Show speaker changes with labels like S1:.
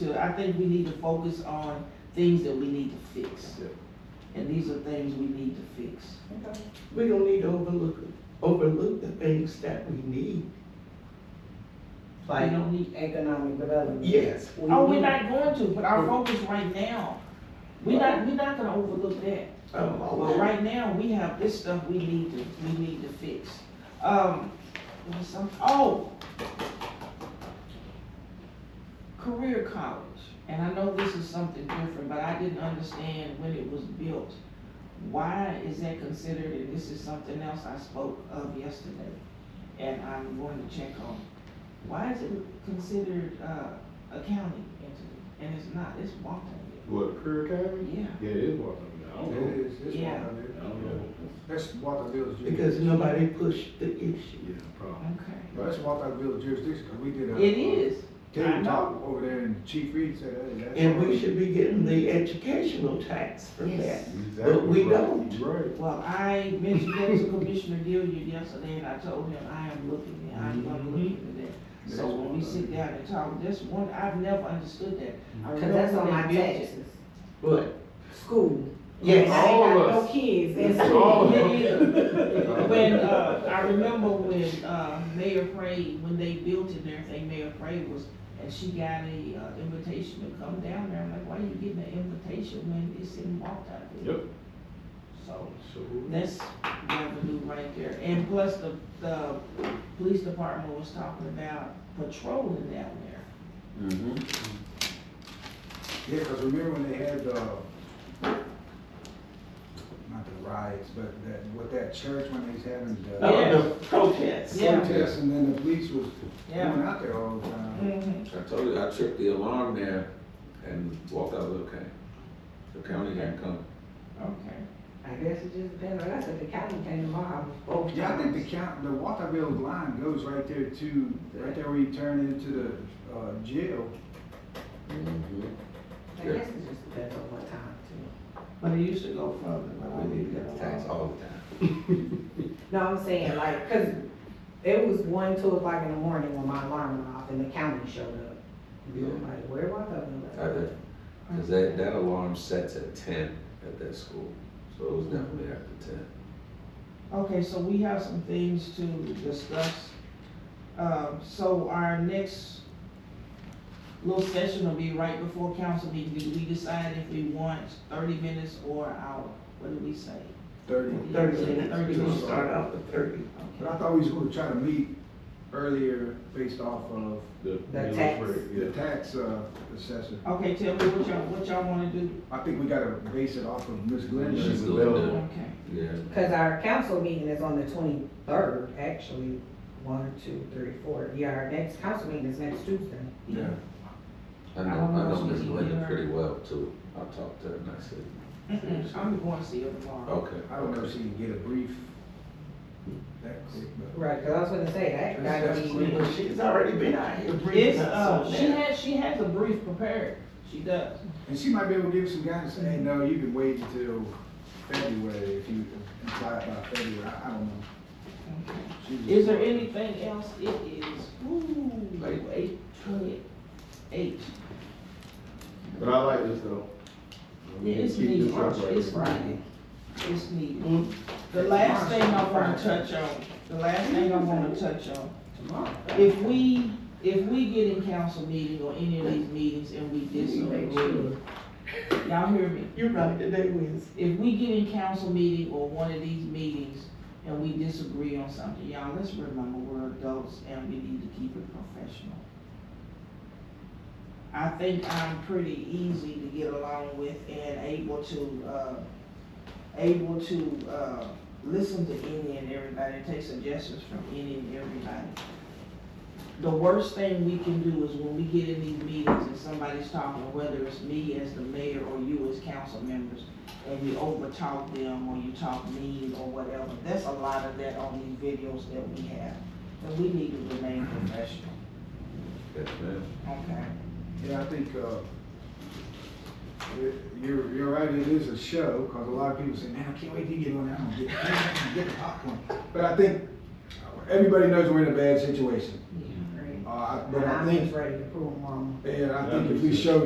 S1: to, I think we need to focus on things that we need to fix.
S2: Yeah.
S1: And these are things we need to fix.
S3: We don't need to overlook, overlook the things that we need.
S1: We
S3: Like,
S1: don't need,
S4: Economic development.
S3: yes,
S4: We
S1: oh, we're
S4: need-
S1: not going to, but our focus right now, we're not, we're not gonna overlook that.
S3: um,
S1: Well,
S3: all
S1: right now, we have this stuff we need to, we need to fix. Um, what's some, oh. Career college, and I know this is something different, but I didn't understand when it was built. Why is that considered, and this is something else I spoke of yesterday, and I'm going to check on. Why is it considered, uh, a county entity, and it's not, it's Walton,
S2: What, Career Academy?
S1: yeah.
S2: Yeah, it is Waltham. I don't know.
S5: It is, it's
S1: Yeah.
S2: I don't
S5: Walterville.
S2: know.
S5: That's Walterville's
S3: because
S5: jurisdiction.
S3: nobody pushed the issue.
S2: Yeah, probably.
S1: Okay.
S5: That's Walterville's jurisdiction, 'cause we did a.
S1: It is. I
S5: Table
S1: know.
S5: talk over there and Chief Reed said, hey, that's.
S3: And we should be getting the educational tax from
S1: Yes.
S3: that.
S2: Exactly
S3: But we
S2: right.
S3: don't.
S2: You're Right.
S1: Well, I mentioned that to Commissioner Gilliard yesterday, and I told him, I am looking, and I'm gonna look into that.
S5: That's
S1: So when we
S5: Walterville.
S1: sit down and talk, that's one, I've never understood that. I
S4: Cause that's on
S1: remember
S4: my
S1: when they built it.
S4: taxes,
S3: But,
S4: school.
S3: yes,
S4: I ain't
S2: All of
S4: got no
S2: us.
S4: kids in
S2: All
S4: school.
S2: of us.
S1: Me neither. Oh, When, uh, I remember when, uh, Mayor Frey, when they built it and everything, Mayor Frey was, and she got a, uh, invitation to come down there, I'm like, why are you getting an invitation when it's in Walton?
S2: Yep.
S1: So,
S2: So,
S1: That's revenue right there, and plus the, the police department was talking about patrolling down there.
S6: Mm-hmm.
S5: Yeah, because remember when they had, uh, not the riots, but that, with that church when they was having
S3: uh,
S5: the
S1: Yeah.
S3: the protest.
S1: Yeah.
S5: protests and then the police was
S1: Yeah. Mm.
S5: going out there all the time.
S1: Mm-hmm.
S6: I told you, I checked the alarm there and walked out of the county. The county didn't come.
S1: Okay.
S4: I guess it just depends, like I said, the county came to my house both
S5: Yeah, I think the
S4: times.
S5: count, the Walterville line goes right there to, right there where you turn into the, uh, jail.
S2: Mm-hmm.
S4: I guess it just depends on what time too.
S1: But it used to go further, but I
S6: We need
S1: didn't
S6: to get the tax all the time.
S4: No, I'm saying like, cause it was one, two o'clock in the morning when my alarm went off and the county showed up. And I'm like, where was I?
S6: I did. Cause that, that alarm sets at ten at that school, so it was definitely after ten.
S1: Okay, so we have some things to discuss. Um, so our next little session will be right before council meeting. Do we decide if we want thirty minutes or an hour? What do we say?
S5: Thirty.
S3: Thirty minutes,
S1: Thirty
S3: we're gonna
S1: minutes.
S3: start off with thirty.
S5: But
S1: Okay.
S5: I thought we was gonna try to meet earlier based off of
S2: the.
S4: The tax.
S5: the tax, uh, assessor.
S1: Okay, tell me what y'all, what y'all wanna do?
S5: I think we gotta base it off of Ms. Glenn's.
S6: Ms.
S2: available.
S6: Glenda.
S1: Okay.
S6: Yeah,
S4: Cause our council meeting is on the twenty-third, actually, one, two, three, four. Yeah, our next council meeting is next Tuesday.
S5: Yeah.
S6: I
S1: I
S6: know,
S1: don't know
S6: I know
S1: if
S6: Miss
S1: we can
S6: Glenda
S1: hear.
S6: pretty well too. I talked to her and I said,
S1: Mm-mm, I'm going to see her tomorrow.
S6: okay.
S5: I don't know if she can get a brief that quick, but.
S4: Right, cause I was gonna say, that gotta
S5: That's-
S4: be,
S3: But she's already been out here
S1: It's,
S3: breathing
S1: uh,
S3: out
S1: she
S3: something.
S1: has, she has a brief prepared, she does.
S5: And she might be able to give us some guidance, say, hey, no, you can wait until February if you apply by February, I I don't know. She was-
S1: Is there anything else? It is, ooh,
S6: Late.
S1: eight twenty-eight.
S2: But I like this though. We can
S1: It's
S2: keep
S1: needed,
S2: this up right
S1: it's
S2: now.
S1: needed, it's needed.
S3: Mm,
S1: The last thing I wanna touch on, the last thing I wanna touch on,
S4: tomorrow.
S1: if we, if we get in council meeting or any of these meetings and we disagree, y'all hear me?
S3: You're right, today Wednesday.
S1: if we get in council meeting or one of these meetings and we disagree on something, y'all, let's remember we're adults and we need to keep it professional. I think I'm pretty easy to get along with and able to, uh, able to, uh, listen to any and everybody, and take suggestions from any and everybody. The worst thing we can do is when we get in these meetings and somebody's talking, whether it's me as the mayor or you as council members, and you overtalk them or you talk mean or whatever. That's a lot of that on these videos that we have. And we need to remain professional,
S6: Yes, ma'am.
S1: okay?
S5: Yeah, I think, uh, it- you're, you're right, it is a show, cause a lot of people say, man, I can't wait to get on that, I'm gonna get, I'm gonna get the popcorn. But I think everybody knows we're in a bad situation.
S4: Right.
S5: Uh, I- but
S4: And
S5: I
S4: I'm
S5: think,
S4: just ready to prove them wrong.
S5: and I think if we show